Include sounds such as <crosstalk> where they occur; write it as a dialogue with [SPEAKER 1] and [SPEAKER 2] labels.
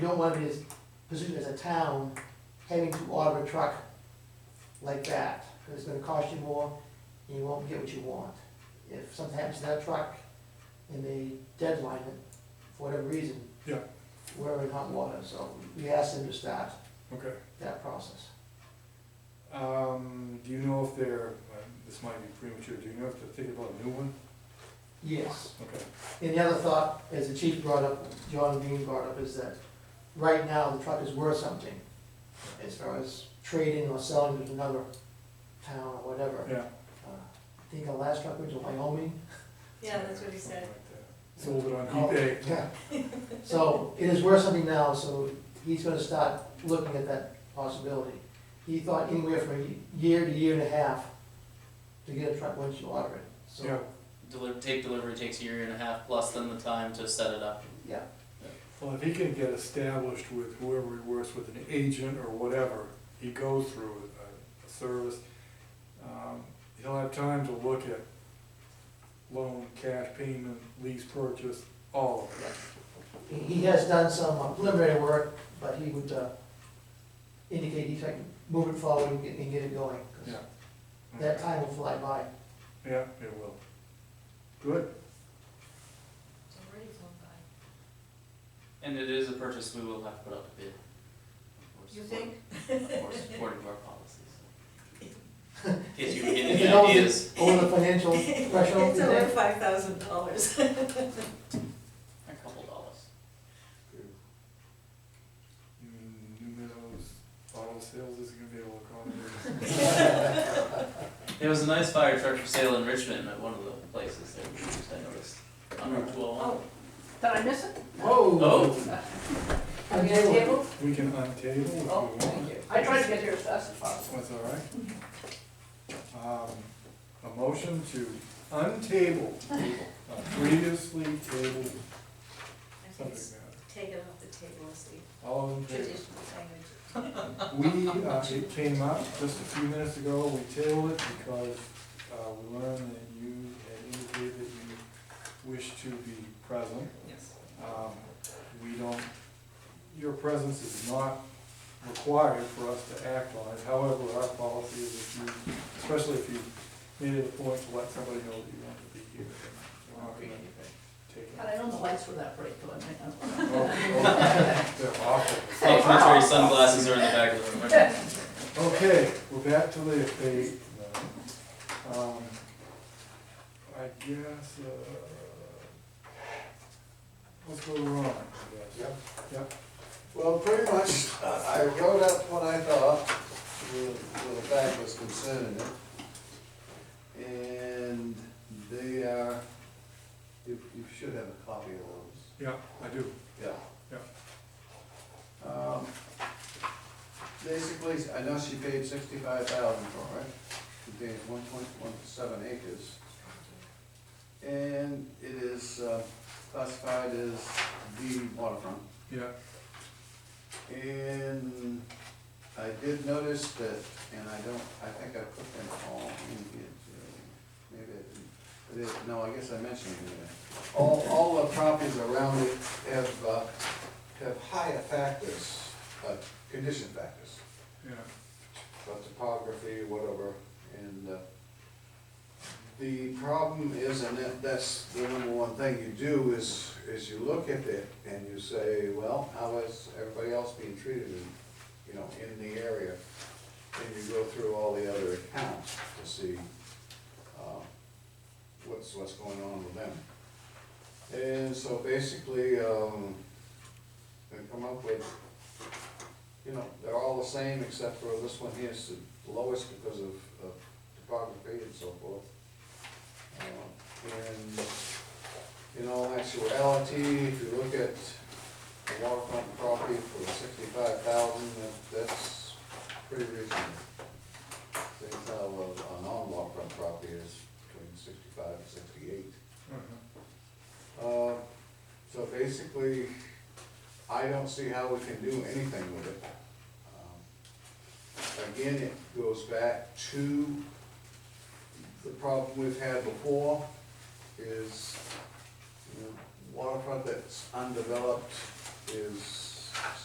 [SPEAKER 1] You don't want his position as a town having to order a truck like that, because it's gonna cost you more, and you won't get what you want. If something happens to that truck, and they deadline it, for whatever reason.
[SPEAKER 2] Yeah.
[SPEAKER 1] We're in hot water, so we asked them to start
[SPEAKER 2] Okay.
[SPEAKER 1] that process.
[SPEAKER 2] Um, do you know if they're, uh, this might be premature, do you know if they're thinking about a new one?
[SPEAKER 1] Yes.
[SPEAKER 2] Okay,
[SPEAKER 1] And the other thought, as the chief brought up, John Dean brought up, is that right now, the truck is worth something, as far as trading or selling to another town or whatever.
[SPEAKER 2] yeah.
[SPEAKER 1] Uh, I think our last truck went to Wyoming.
[SPEAKER 3] Yeah, that's what he said.
[SPEAKER 2] Something like that. Sold it on
[SPEAKER 1] Oh,
[SPEAKER 2] eBay.
[SPEAKER 1] Yeah. <laughs> So it is worth something now, so he's gonna start looking at that possibility. He thought anywhere from a year to year and a half to get a truck once you order it,
[SPEAKER 2] Yeah,
[SPEAKER 1] so,
[SPEAKER 4] Deli- take delivery takes a year and a half plus than the time to set it up.
[SPEAKER 1] yeah.
[SPEAKER 2] well, if he can get established with whoever he works with, an agent or whatever, he goes through uh, a, a service, um, he'll have time to look at loan, cash payment, lease purchase, all of it.
[SPEAKER 1] He- He has done some uh, preliminary work, but he would uh, indicate he's like, move it forward and get, and get it going. 'cause
[SPEAKER 2] Yeah.
[SPEAKER 1] That time will fly by.
[SPEAKER 2] Yeah, it will. Good.
[SPEAKER 3] It's already flown by.
[SPEAKER 4] And it is a purchase we will have to put up a bid. Of course,
[SPEAKER 3] You
[SPEAKER 4] according-
[SPEAKER 3] think?
[SPEAKER 4] Of course,
[SPEAKER 3] <laughs>
[SPEAKER 4] according to our policies. In case you were getting
[SPEAKER 1] If
[SPEAKER 4] any
[SPEAKER 1] it over the-
[SPEAKER 4] ideas.
[SPEAKER 1] Over the financial
[SPEAKER 5] <laughs>
[SPEAKER 1] threshold,
[SPEAKER 3] It's
[SPEAKER 1] you
[SPEAKER 3] over
[SPEAKER 1] think?
[SPEAKER 3] five thousand dollars.
[SPEAKER 4] A couple dollars.
[SPEAKER 2] You mean New Meadows Auto Sales is gonna be able to accommodate?
[SPEAKER 4] There was a nice fire truck for sale in Richmond at one of the places that we used, I noticed. On Route two oh one.
[SPEAKER 3] <laughs>
[SPEAKER 5] Oh, did I miss it?
[SPEAKER 1] Whoa.
[SPEAKER 4] Oh,
[SPEAKER 1] <laughs>
[SPEAKER 5] Are you at the table?
[SPEAKER 2] <laughs> We can untable if we
[SPEAKER 5] Oh,
[SPEAKER 2] want.
[SPEAKER 5] thank you. I tried to get here as fast as possible.
[SPEAKER 2] That's all right. Um, a motion to untable a previously tabled subject matter.
[SPEAKER 3] Take it off the table, it's the
[SPEAKER 2] All in favor?
[SPEAKER 3] traditional language.
[SPEAKER 2] We, uh, it came up just a few minutes ago, we tabled it because, uh, we learned that you had indicated that you wish to be present.
[SPEAKER 3] Yes.
[SPEAKER 2] Um, We don't, your presence is not required for us to act on it. However, our policy is if you, especially if you made it a point to let somebody know that you want to be here. we're not gonna take
[SPEAKER 5] God, I know the lights were that bright, though, I might not.
[SPEAKER 3] <laughs>
[SPEAKER 2] it. <laughs> Oh, oh, They're awful.
[SPEAKER 4] complimentary sunglasses are in the back of the room.
[SPEAKER 2] Okay, we're back to the fate. Um, I guess, uh, let's go to Ron, I guess.
[SPEAKER 6] Yep.
[SPEAKER 2] Yep.
[SPEAKER 6] Well, pretty much, uh, I wrote up what I thought, where where the fact was concerning it. And they are, you, you should have a copy of those,
[SPEAKER 2] Yeah, I do.
[SPEAKER 6] yeah. Yeah. Um, Basically, I know she paid sixty-five thousand for it, contains one point one seven acres. And it is uh, classified as the waterfront.
[SPEAKER 2] Yeah,
[SPEAKER 6] And I did notice that, and I don't, I think I put them all in here too. Maybe I didn't, I didn't- no, I guess I mentioned it in there. All, all the properties around it have, uh, have higher factors, uh, condition factors,
[SPEAKER 2] yeah.
[SPEAKER 6] uh, topography, whatever, and, uh, the problem is, and that, that's the number one thing you do is, is you look at it and you say, well, how is everybody else being treated in, you know, in the area? And you go through all the other accounts to see, uh, what's, what's going on with them. And so basically, um, they come up with, you know, they're all the same except for this one here is the lowest because of, of topography and so forth. Uh, And in all actuality, if you look at the waterfront property for sixty-five thousand, that's pretty reasonable. Things how a- a non-waterfront property is between sixty-five and sixty-eight.
[SPEAKER 2] Uh-huh.
[SPEAKER 6] Uh, So basically, I don't see how we can do anything with it. Um, Again, it goes back to the problem we've had before is you know, waterfront that's undeveloped is